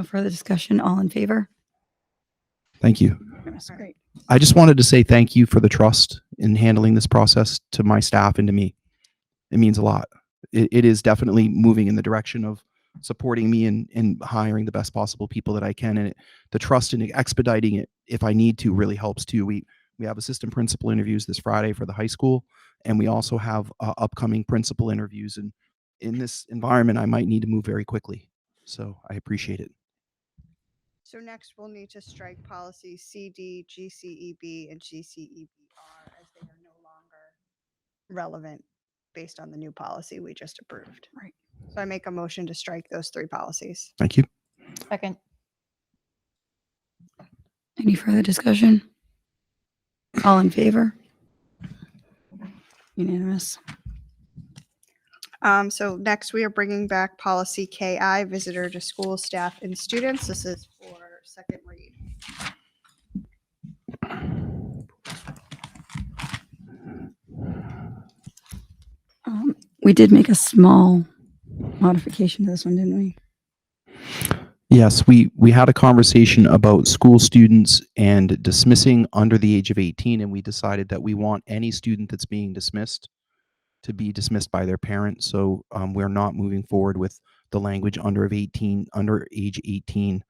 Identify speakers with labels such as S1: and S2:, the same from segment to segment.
S1: No further discussion. All in favor?
S2: Thank you.
S1: That's great.
S2: I just wanted to say thank you for the trust in handling this process to my staff and to me. It means a lot. It, it is definitely moving in the direction of supporting me and, and hiring the best possible people that I can. And it, the trust in expediting it, if I need to, really helps too. We we have assistant principal interviews this Friday for the high school, and we also have uh, upcoming principal interviews. And in this environment, I might need to move very quickly. So I appreciate it.
S3: So next, we'll need to strike policy CD, GCEB, E, and GCEBR as they are no longer relevant based on the new policy we just approved.
S1: Right.
S3: So I make a motion to strike those three policies.
S2: Thank you.
S4: Second.
S1: Any further discussion? All in favor? Unanimous.
S3: Um, so next, we are bringing back policy KI, visitor to school staff and students. This is for second read.
S1: Um, We did make a small modification to this one, didn't we?
S2: Yes, we, we had a conversation about school students and dismissing under the age of 18, and we decided that we want any student that's being dismissed to be dismissed by their parent. So um, we're not moving forward with the language under of 18, under age 18,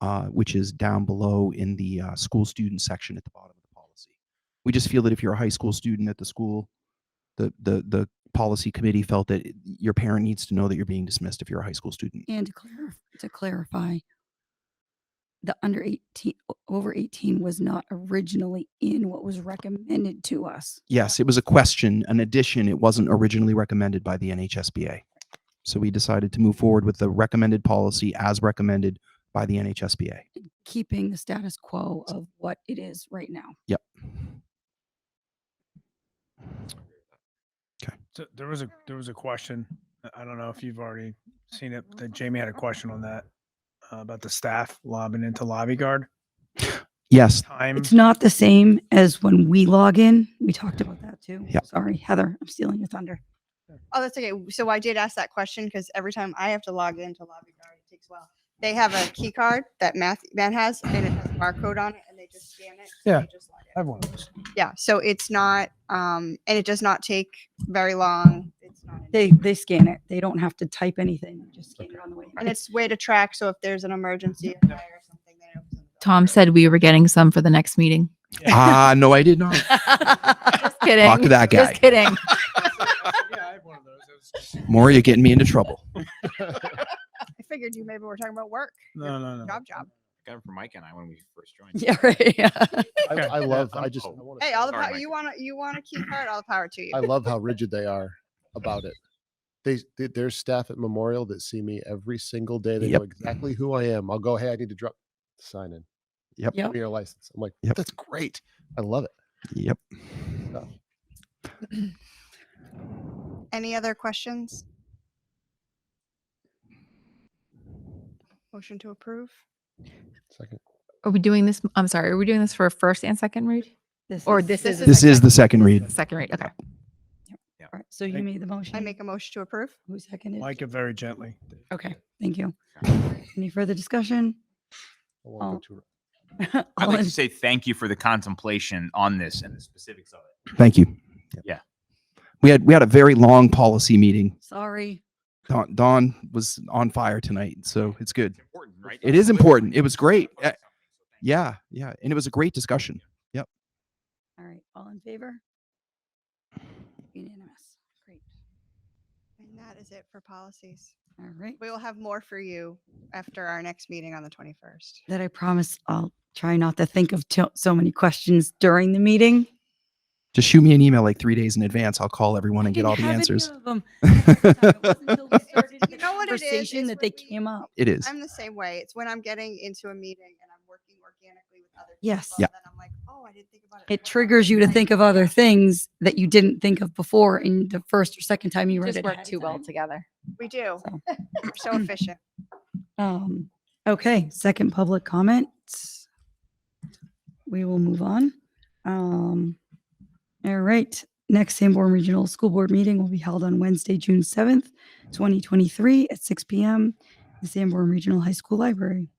S2: uh, which is down below in the uh, school student section at the bottom of the policy. We just feel that if you're a high school student at the school, the the the policy committee felt that your parent needs to know that you're being dismissed if you're a high school student.
S1: And to clarify, to clarify, the under 18, o- over 18 was not originally in what was recommended to us.
S2: Yes, it was a question, an addition. It wasn't originally recommended by the NHSBA. So we decided to move forward with the recommended policy as recommended by the NHSBA.
S1: keeping the status quo of what it is right now.
S5: So there was a, there was a question, I- I don't know if you've already seen it, but Jamie had a question on that. uh, About the staff lobbing into lobby guard
S2: Yes,
S5: time.
S1: It's not the same as when we log in. We talked about that too.
S2: Yeah.
S1: Sorry, Heather, I'm stealing your thunder.
S3: Oh, that's okay. So I did ask that question because every time I have to log into Lobby Guard, it takes a while. They have a key card that Matt, Matt has and it has a barcode on it and they just scan it. and
S5: Yeah.
S3: they just log in.
S5: I have one of those.
S3: Yeah, so it's not, um, and it does not take very long. It's not, an-
S1: They, they scan it. They don't have to type anything. They Just scan it on the way. in.
S3: and it's way to track. So if there's an emergency a fire or something, then it opens. up.
S4: Tom said we were getting some for the next meeting.
S2: ah, no, I did not.
S4: Just kidding.
S2: Talk to that guy.
S4: Just kidding.
S5: Yeah, I have one of those. It was-
S2: More, you're getting me into trouble.
S3: I figured you maybe we're talking about work,
S5: No, no, no.
S3: job, job.
S6: got it from Mike and I when we first joined.
S4: Yeah, right. Yeah.
S7: I,
S5: Okay.
S7: I love. I
S6: I'm
S7: just. I,
S6: cold.
S7: wanna
S3: Hey,
S7: say
S3: all the
S6: Sorry,
S3: power,
S6: Mike.
S3: you want to, you want a key card, all the power to you.
S7: I love how rigid they are about it. They, they there's staff at Memorial that see me every single day. They
S2: Yep.
S7: know exactly who I am. I'll go. Hey, I need to drop sign in.
S2: Yep.
S1: Yep.
S7: Your license. I'm like,
S2: Yep.
S7: that's great. I love it.
S2: Yep.
S3: Any other questions? Motion to approve?
S7: Second.
S4: Are we doing this? I'm sorry. Are we doing this for a first and second read? Or this is
S2: This is the second read.
S4: Second read. Okay.
S1: All right, So you
S5: Make-
S1: made the motion.
S3: I make a motion to approve?
S1: Who seconded?
S5: Like it very gently.
S1: Okay, thank you.
S6: Okay.
S1: Any further discussion?
S7: I won't go
S1: Oh.
S7: too-
S6: I'd
S1: All
S6: like
S1: in-
S6: to say thank you for the contemplation on this and the specifics of it.
S2: Thank you.
S6: Yeah.
S2: We had we had a very long policy meeting.
S1: Sorry.
S2: Don, Don was on fire tonight, so it's good.
S6: It's important, right?
S2: It is important. It was great. Uh, Yeah, yeah, and it was a great discussion.
S1: All right, all in favor? Unanimous. Great.
S3: And that is it for policies.
S1: All right.
S3: We will have more for you after our next meeting on the 21st.
S1: that I promise I'll try not to think of to- so many questions during the meeting.
S2: Just shoot me an email like three days in advance. I'll call everyone and get
S1: Didn't
S2: all the
S1: have any
S2: answers.
S1: of 'em. It wasn't until we
S2: it
S1: started the
S3: You know what it is,
S1: Conversation
S3: is
S1: that they
S3: when we-
S1: came up.
S2: is.
S3: I'm the same way. It's when I'm getting into a meeting and I'm working organically with other
S1: Yes.
S3: people.
S2: Yeah.
S3: And then I'm like, oh, I didn't think about it.
S1: It triggers you to think of other things that you didn't think of before in the first or second time you read it.
S4: Just
S1: ahead
S4: work
S1: of
S4: too well
S1: time.
S4: together.
S3: We do.
S1: So.
S3: We're so efficient.
S1: Um, okay, second public comment. We will move on. Um, all right, next Sanborn Regional School Board meeting will be held on Wednesday, June seventh, twenty twenty-three at six P M the Sanborn Regional High School Library.